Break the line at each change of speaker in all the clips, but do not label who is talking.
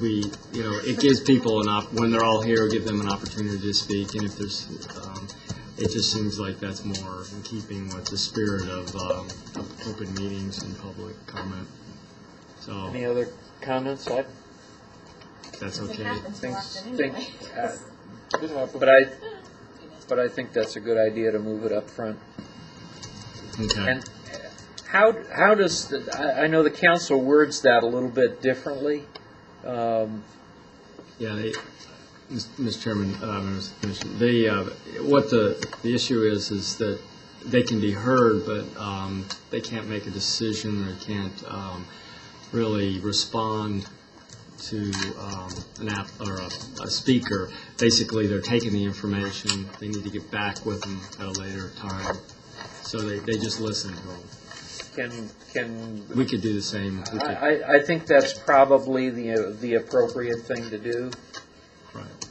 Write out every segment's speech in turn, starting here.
we, you know, it gives people an op, when they're all here, it'll give them an opportunity to speak, and if there's, um, it just seems like that's more in keeping with the spirit of, um, of open meetings and public comment. So,
Any other comments? I
that's
It
okay.
happens more
think,
often
think,
anyway.
uh, but I, but I think that's a good idea to move it up front.
Okay.
And how, how does, the- I, I know the council words that a little bit differently. Um,
Yeah, they, Mr. Chairman, uh, members of the commission, they, uh, what the, the issue is, is that they can be heard, but um, they can't make a decision, or can't um, really respond to um, an app, or a a speaker. Basically, they're taking the information, they need to get back with them at a later time, so they, they just listen to them.
Can, can,
We could do the same, we
I,
could,
I- I think that's probably the, the appropriate thing to do.
right.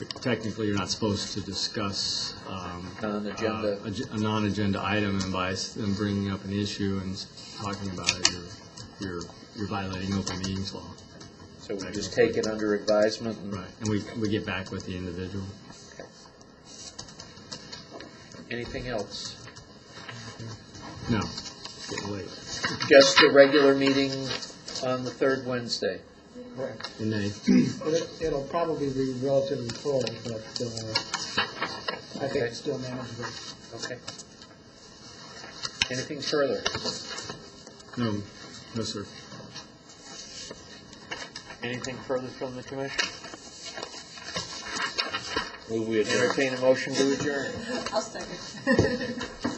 But Technically, you're not supposed to discuss um,
Non-agenda.
uh, ag- A non-agenda item, and by s- them bringing up an issue and s- talking about it, you're, you're you're violating open meetings law.
So we just take it under advisement and
Right. And we, we get back with the individual.
anything else?
No, it's getting late.
Just the regular meeting on the third Wednesday.
Correct.
And they,
It- It'll probably be relatively full, but uh, I think it's still manageable.
Okay. Anything further?
no, no, sir.
Anything further from the commission? Entertain a motion to adjourn.
I'll second.